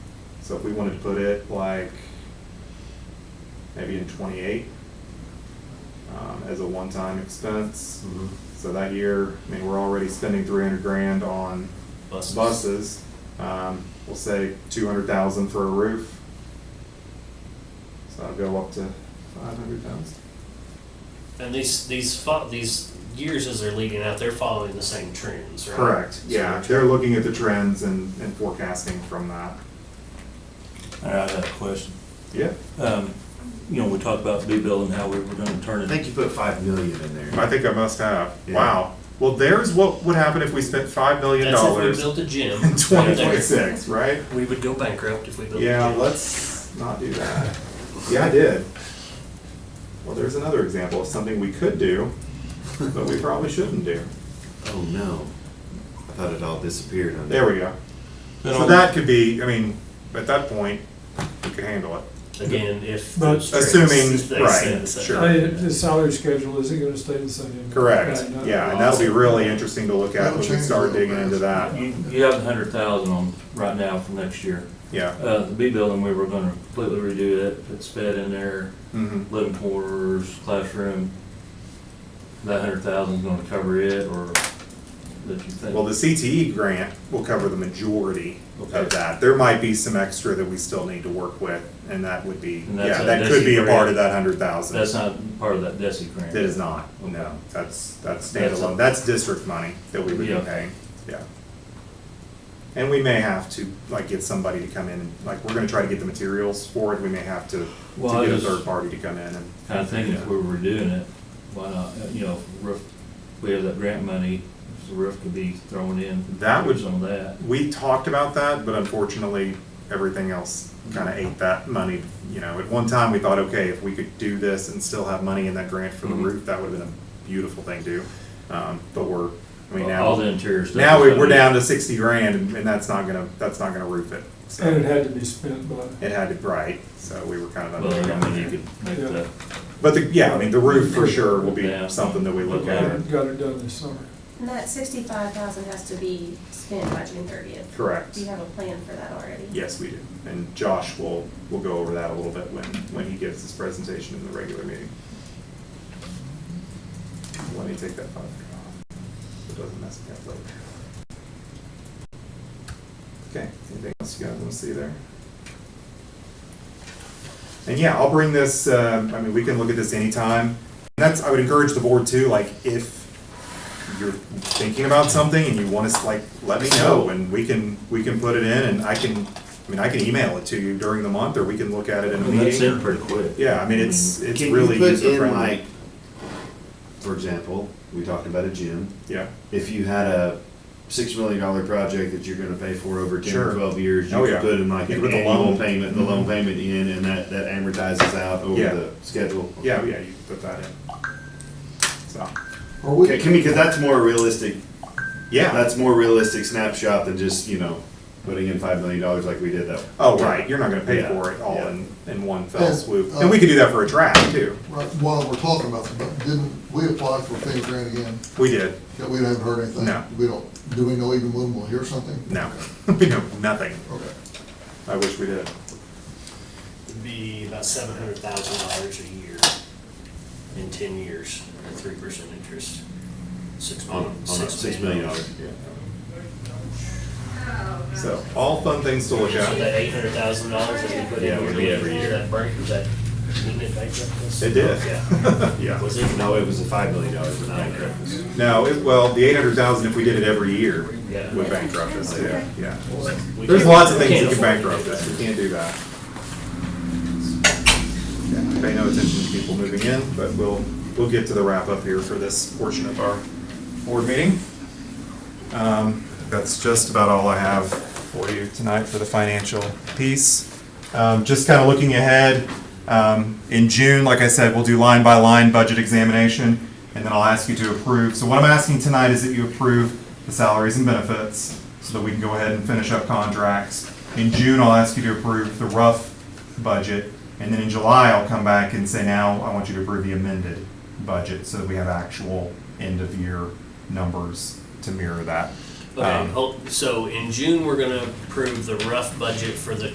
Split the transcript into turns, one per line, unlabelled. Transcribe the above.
So if we wanted to put it like, maybe in twenty-eight, um, as a one-time expense.
Mhm.
Mm-hmm.
So that year, I mean, we're already spending three hundred grand on
Buses.
buses. Um, we'll say two hundred thousand for a roof. So I'll go up to five hundred thousand.
And these, these, fo- these years as they're leading out, they're following the same trends, right?
Correct,
So
yeah, they're looking at the trends and, and forecasting from that.
All right, I got a question.
Yeah,
Um, you know, we talked about B-bill and how we were gonna turn
I
it.
think you put five million in there.
I think I must have,
Yeah.
wow. Well, there's what would happen if we spent five million
That's if we
dollars
built a gym.
in twenty
right there.
twenty-six, right?
We would go bankrupt if we built a gym.
Yeah, let's not do that. Yeah, I did. Well, there's another example of something we could do, but we probably shouldn't do.
Oh, no. I thought it all disappeared on
There we go.
Then
So
I'll-
that could be, I mean, at that point, we could handle it.
Again, if.
But-
those trends
Assuming-
stay
right,
the same.
sure.
I- The salary schedule, is it gonna stay the same? uh,
Correct,
Okay, no.
yeah, and that'll be really interesting to look at when we start digging into that,
Uh, You, you have a hundred thousand on, right now for next year.
yeah.
Uh, the B building, we were gonna completely redo it, put sped in there,
Mhm.
living quarters, classroom. That hundred thousand's gonna cover it, or that you think?
Well, the CTE grant will cover the majority
Okay.
of that. There might be some extra that we still need to work with, and that would be,
And that's
yeah,
a-
that
that's
could be a
a
part of
grant.
that hundred thousand.
That's not part of that DESI grant.
That is not, no, that's, that's
That's a-
standalone, that's district money that we would be
Yeah.
paying, yeah. And we may have to, like, get somebody to come in, and like, we're gonna try to get the materials for it, we may have to, to
Well, I
get a
just-
third party to come in and.
Kinda thinking
Yeah.
if we were redoing it, why not, uh, you know, if roof, we have that grant money, if the roof could be thrown in.
That would-
Some of that.
We talked about that, but unfortunately, everything else kind of ate that money. You know, at one time, we thought, okay, if we could do this and still have money in that grant for the
Mhm.
roof, that would have been a beautiful thing to do. Um, But we're, I mean,
All the
now,
interior stuff.
now
is
we-
gonna
we're
be-
down to sixty grand and and that's not gonna, that's not gonna roof it. So
And it had to be spent by,
It had to, right, so we were kind of.
Well, I mean, you
under-
could make
Yeah.
the,
But the, yeah, I mean, the roof for sure will be
Yeah.
something that we look at.
got it done this summer.
And that sixty-five thousand has to be spent by June thirtieth.
Correct.
Do you have a plan for that already?
Yes, we do. And Josh will, will go over that a little bit when, when he gives his presentation in the regular meeting. Let me take that five off. It doesn't mess me up later. Okay, anything else you guys want to see there? And yeah, I'll bring this, uh, I mean, we can look at this anytime. And that's, I would encourage the board too, like, if you're thinking about something and you want us, like, let me know and we can, we can put it in and I can, I mean, I can email it to you during the month or we can look at it in a
and that's in
meeting.
pretty quick.
Yeah, I mean, it's, it's
Can you
really
put in,
user friendly.
like, For example, we talked about a gym.
Yeah,
If you had a six million dollar project that you're gonna pay for over ten
Sure.
or twelve years, you
Oh,
could
yeah.
put in like
You could
an
put the
annual
loan.
payment, the loan payment in, and that, that amortizes out over
Yeah.
the schedule.
yeah, yeah, you can put that in. So,
Are we,
Okay, can because that's more realistic,
yeah,
that's more realistic snapshot than just, you know, putting in five million dollars like we did though.
oh, right, you're not gonna pay
Yeah,
for it all
yeah.
in, in one fell
Oh,
swoop.
uh,
And we could do that for a track too.
right, while we're talking about this, but didn't, we applied for a FEMA grant again,
We did,
that we haven't heard anything?
No.
We don't, do we know even when we'll hear something?
no, we know nothing.
Okay.
I wish we did.
It'd Be about seven hundred thousand dollars a year in ten years, at three percent interest. Six
On,
million.
on six million dollars, yeah.
So, all fun things to look
So
at.
that eight hundred thousand dollars that we put
Yeah,
in
we
would
do
be
every year.
that break, that, didn't it bankrupt us?
It did.
Yeah.
Yeah.
Was it?
No, it was a five million dollars that bankrupt us.
No, it, well, the eight hundred thousand, if we did it every year,
Yeah.
would bankrupt us, yeah, yeah.
We
There's
can't-
lots of
we
things that
can't
can
afford to
bankrupt
do
us,
that.
we can't do that. Yeah, Pay no attention to people moving in, but we'll, we'll get to the wrap up here for this portion of our board meeting. Um, That's just about all I have for you tonight for the financial piece. Um, Just kind of looking ahead, um, in June, like I said, we'll do line-by-line budget examination, and then I'll ask you to approve. So what I'm asking tonight is that you approve the salaries and benefits, so that we can go ahead and finish up contracts. In June, I'll ask you to approve the rough budget, and then in July, I'll come back and say, now, I want you to approve the amended budget, so that we have actual end-of-year numbers to mirror that.
Okay,
Um,
oh, so in June, we're gonna approve the rough budget for the